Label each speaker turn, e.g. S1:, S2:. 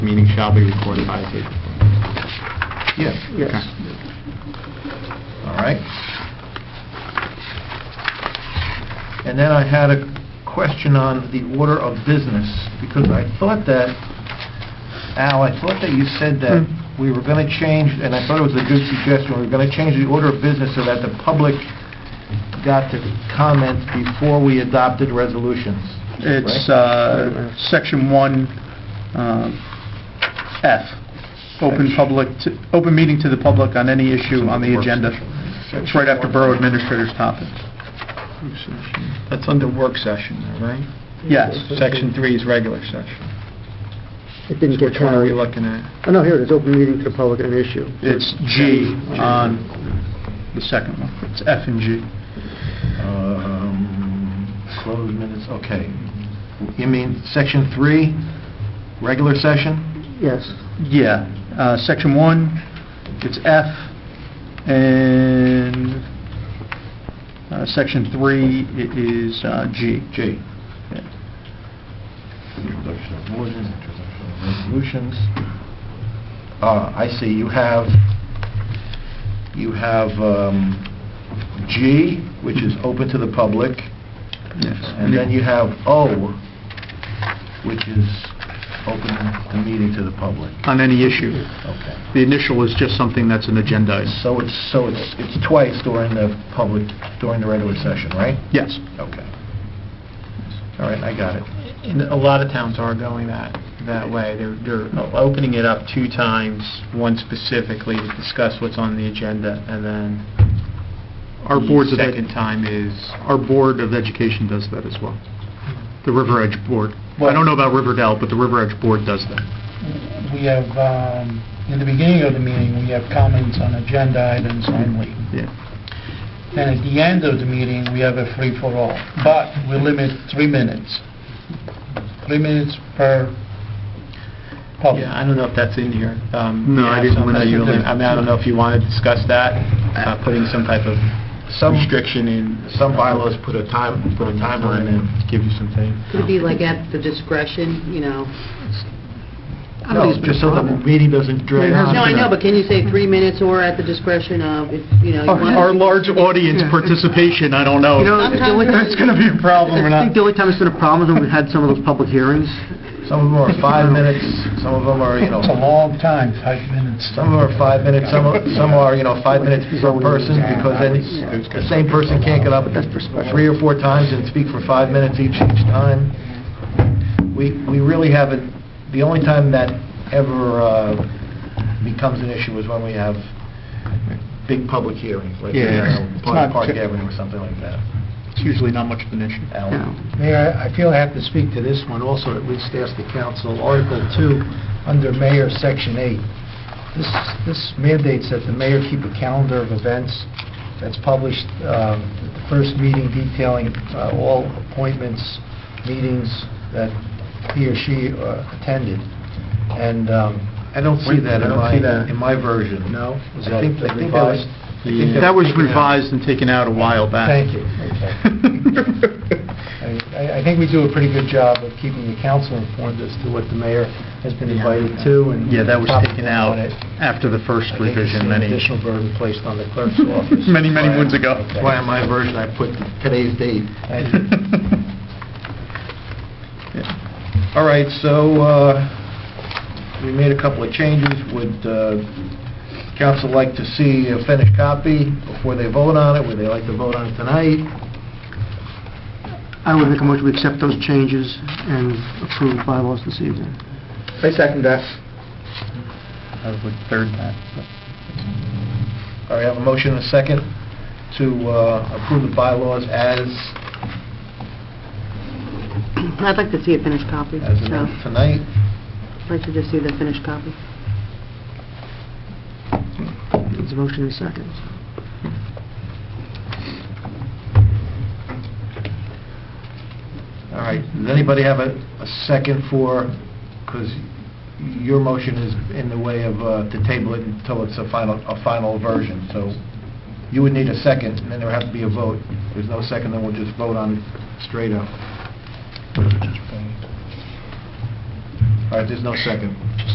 S1: Meeting shall be recorded by a tape recorder.
S2: Yes.
S3: Yes.
S2: All right. And then I had a question on the order of business, because I thought that, Al, I thought that you said that
S3: Hmm.
S2: we were going to change, and I thought it was a good suggestion, we were going to change the order of business so that the public got to comment before we adopted resolutions.
S3: It's
S2: right?
S3: uh, Section 1, um, F, open public, to- open meeting to the public on any issue on the agenda. It's right after Borough Administrator's topic.
S1: That's under work session, all right?
S3: Yes.
S1: Section three is regular session.
S4: It didn't
S1: Which
S4: get
S1: one are we
S4: counted.
S1: looking at?
S4: Oh, no, here it is, open meeting to the public on an issue.
S3: It's G on the second one. It's F and G.
S2: Um, Closed minutes, okay. You mean section three, regular session?
S4: Yes.
S3: Yeah, uh, Section 1, it's F, and uh, Section 3, it is uh, G.
S2: G.
S3: Yeah.
S2: Introduction of orders, introduction of resolutions. Uh, I see, you have, you have um, G, which is open to the public,
S3: Yes.
S2: and then you have O, which is open the meeting to the public.
S3: On any issue.
S2: Okay.
S3: The initial is just something that's an agenda item.
S2: So it's, so it's, it's twice during the public, during the regular session, right?
S3: Yes.
S2: Okay. All right, I got it.
S1: And a lot of towns are going that, that way. They're, they're opening it up two times, one specifically to discuss what's on the agenda, and then
S3: Our boards
S1: the
S3: of, ed-
S1: second time is,
S3: our Board of Education does that as well. The River Edge Board. I don't know about Riverdale, but the River Edge Board does that.
S5: we have, um, in the beginning of the meeting, we have comments on agenda items only.
S3: Yeah.
S5: And at the end of the meeting, we have a free-for-all, but we limit three minutes. Three minutes per public.
S1: yeah, I don't know if that's in here. Um, you
S3: No, I
S1: have
S3: didn't
S1: something
S3: wanna-
S1: you lim- I mean, I don't know if you want to discuss that, uh, putting some type of
S2: Some,
S1: restriction in.
S2: some bylaws put a time, put a timeline in.
S1: Give you some time.
S6: Could it be like at the discretion, you know? I don't
S2: No,
S6: think it's
S2: just so the
S6: a problem.
S2: meeting doesn't drag on.
S6: No, I know, but can you say three minutes or at the discretion of, if, you know, you
S3: Our our
S6: want...
S3: large audience participation, I don't know.
S4: You know,
S3: if
S4: the only time-
S3: That's going to be a problem or
S4: I
S3: not.
S4: think the only time it's been a problem is when we had some of those public hearings.
S2: Some of them are five minutes, some of them are, you know,
S5: It's a long time, five minutes.
S2: some of them are five minutes, some are, some are, you know, five minutes per person, because then the same person can't get up
S4: But that's for special.
S2: three or four times and speak for five minutes each, each time. We, we really haven't, the only time that ever uh, becomes an issue is when we have big public hearings, like, you
S3: Yeah,
S2: know,
S3: it's
S2: Park
S3: not-
S2: Park Avenue or something like that.
S3: It's usually not much of an issue.
S2: Alan?
S4: No.
S5: Mayor, I feel I have to speak to this one also, at least ask the council. Article 2, under Mayor, Section 8. This this mandates that the mayor keep a calendar of events that's published, um, at the first meeting detailing uh, all appointments, meetings that he or she uh, attended. And um,
S2: I don't see
S5: I
S2: that in
S5: don't
S2: my,
S5: see that.
S2: in my version.
S5: No? Was
S2: I think,
S5: that
S2: I think that was...
S5: revised?
S2: I think
S3: That was
S2: taken out.
S3: revised and taken out a while back.
S5: Thank you. Okay. I I think we do a pretty good job of keeping the council informed as to what the mayor has been invited to and...
S3: Yeah, that was
S5: topic
S3: taken out
S5: on it.
S3: after the first
S5: I think it's
S3: revision
S5: an
S3: many,
S5: additional burden placed on the clerk's office.
S3: many, many moons ago.
S2: That's why in my version I put today's date.
S5: Thank you.
S2: All right, so uh, we made a couple of changes. Would uh, council like to see a finished copy before they vote on it? Would they like to vote on it tonight?
S4: I would make a motion to accept those changes and approve bylaws this evening.
S3: I second that. I would third that.
S2: All right, I have a motion and a second to uh, approve the bylaws as
S6: I'd like to see a finished copy,
S2: as
S6: so,
S2: amended tonight.
S6: I'd like to just see the finished copy.
S4: It's a motion in seconds.
S2: All right, does anybody have a a second for, because your motion is in the way of, uh, to table it until it's a final, a final version, so you would need a second, and then there would have to be a vote. If There's no second, then we'll just vote on it straight up. All right, there's no second.